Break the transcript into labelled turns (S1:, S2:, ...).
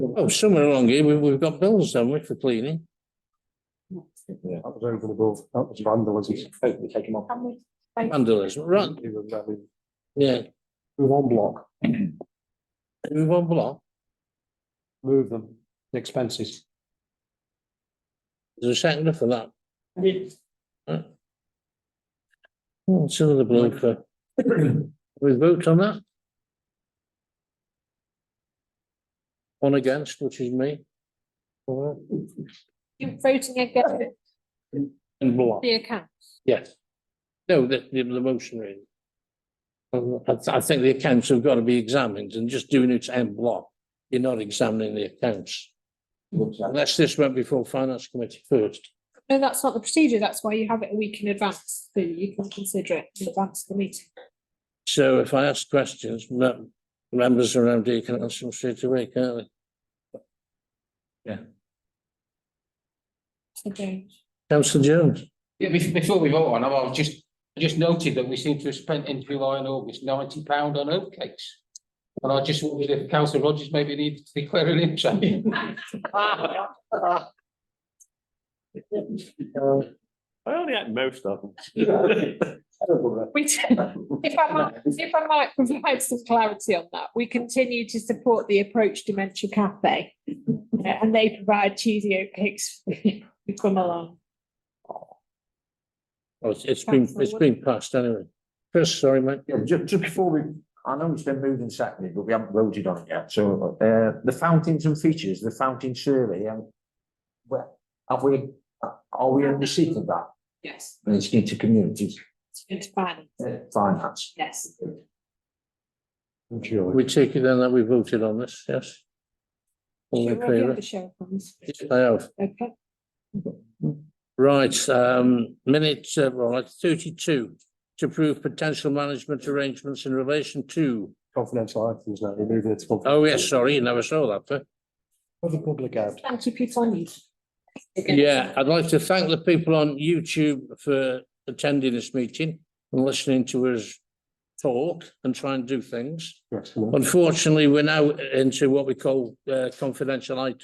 S1: Oh, somewhere along here, we've, we've got bills, haven't we, for cleaning?
S2: Yeah, that was over the above, that was vandalism. Hopefully take them off.
S3: Can we
S1: Vandalism, right,
S2: It was really-
S1: yeah,
S2: Move on block,
S1: move on block,
S2: move them, the expenses.
S1: there's a second for that. Right. Oh, it's another bloke for. We vote on that? One against, which is me. All right.
S3: you're voting against
S2: And block.
S3: the account?
S1: Yes. No, the, the, the motion really. Um, I, th- I think the accounts have got to be examined and just doing it en bloc. You're not examining the accounts unless this went before finance committee first.
S3: No, that's not the procedure. That's why you have it a week in advance, so you can consider it in advance of the meeting.
S1: So if I ask questions, mem- members around here can answer them straight away, can't they?
S3: So James,
S1: Councillor Jones,
S4: Yeah, bef- before we vote on, them, I was just, I just noted that we seem to have spent in July and August ninety pound on oatcakes. And I just wondered if councillor Rogers maybe needed to declare an interest.
S5: I only had most of them.
S3: we t- If I might, if I might provide some clarity on that, we continue to support the Approach Dementia Cafe. uh, And they provide cheesy oatcakes for people who come along.
S1: Oh, it's- it's been, it's been passed anyway. Chris, sorry mate,
S6: Yeah, just, just before we, I know it's been moved and seconded, but we haven't voted on it yet, so, uh, the fountains and features, the fountain survey, um. Well, have we, uh, are we in receipt of that,
S3: Yes.
S6: And it's into communities,
S3: It's good to finance,
S6: uh, finance?
S3: yes.
S2: Enjoy.
S1: we take it then that we voted on this, yes? All in
S3: You already
S1: favour?
S3: have the share funds.
S1: Yes, I have.
S3: Okay.
S1: Right, um, minute, uh, well, like thirty-two, to approve potential management arrangements in relation to,
S2: Confidential items
S6: nou,
S2: now, we're moving it to. confidential.
S1: oh, yes, sorry, you never saw that, but.
S2: For the public out.
S3: Thank you, Peter, on you.
S1: Yeah, I'd like to thank the people on YouTube for attending this meeting and listening to us talk and try and do things.
S2: Excellent.
S1: Unfortunately, we're now into what we call, uh, confidential items.